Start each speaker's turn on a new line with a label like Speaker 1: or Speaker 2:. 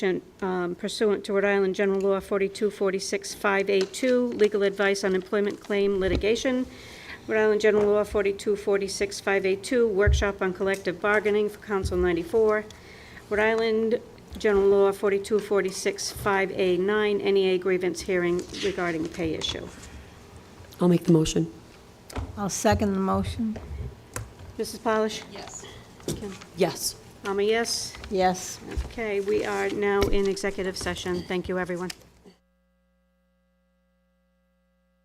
Speaker 1: um, pursuant to Rhode Island General Law 4246582, legal advice on employment claim litigation. Rhode Island General Law 4246582, workshop on collective bargaining for Council 94. Rhode Island General Law 42465A9, NEA grievance hearing regarding pay issue.
Speaker 2: I'll make the motion.
Speaker 3: I'll second the motion.
Speaker 1: Mrs. Polish? Yes.
Speaker 2: Yes.
Speaker 1: I'm a yes.
Speaker 3: Yes.
Speaker 1: Okay, we are now in executive session. Thank you, everyone.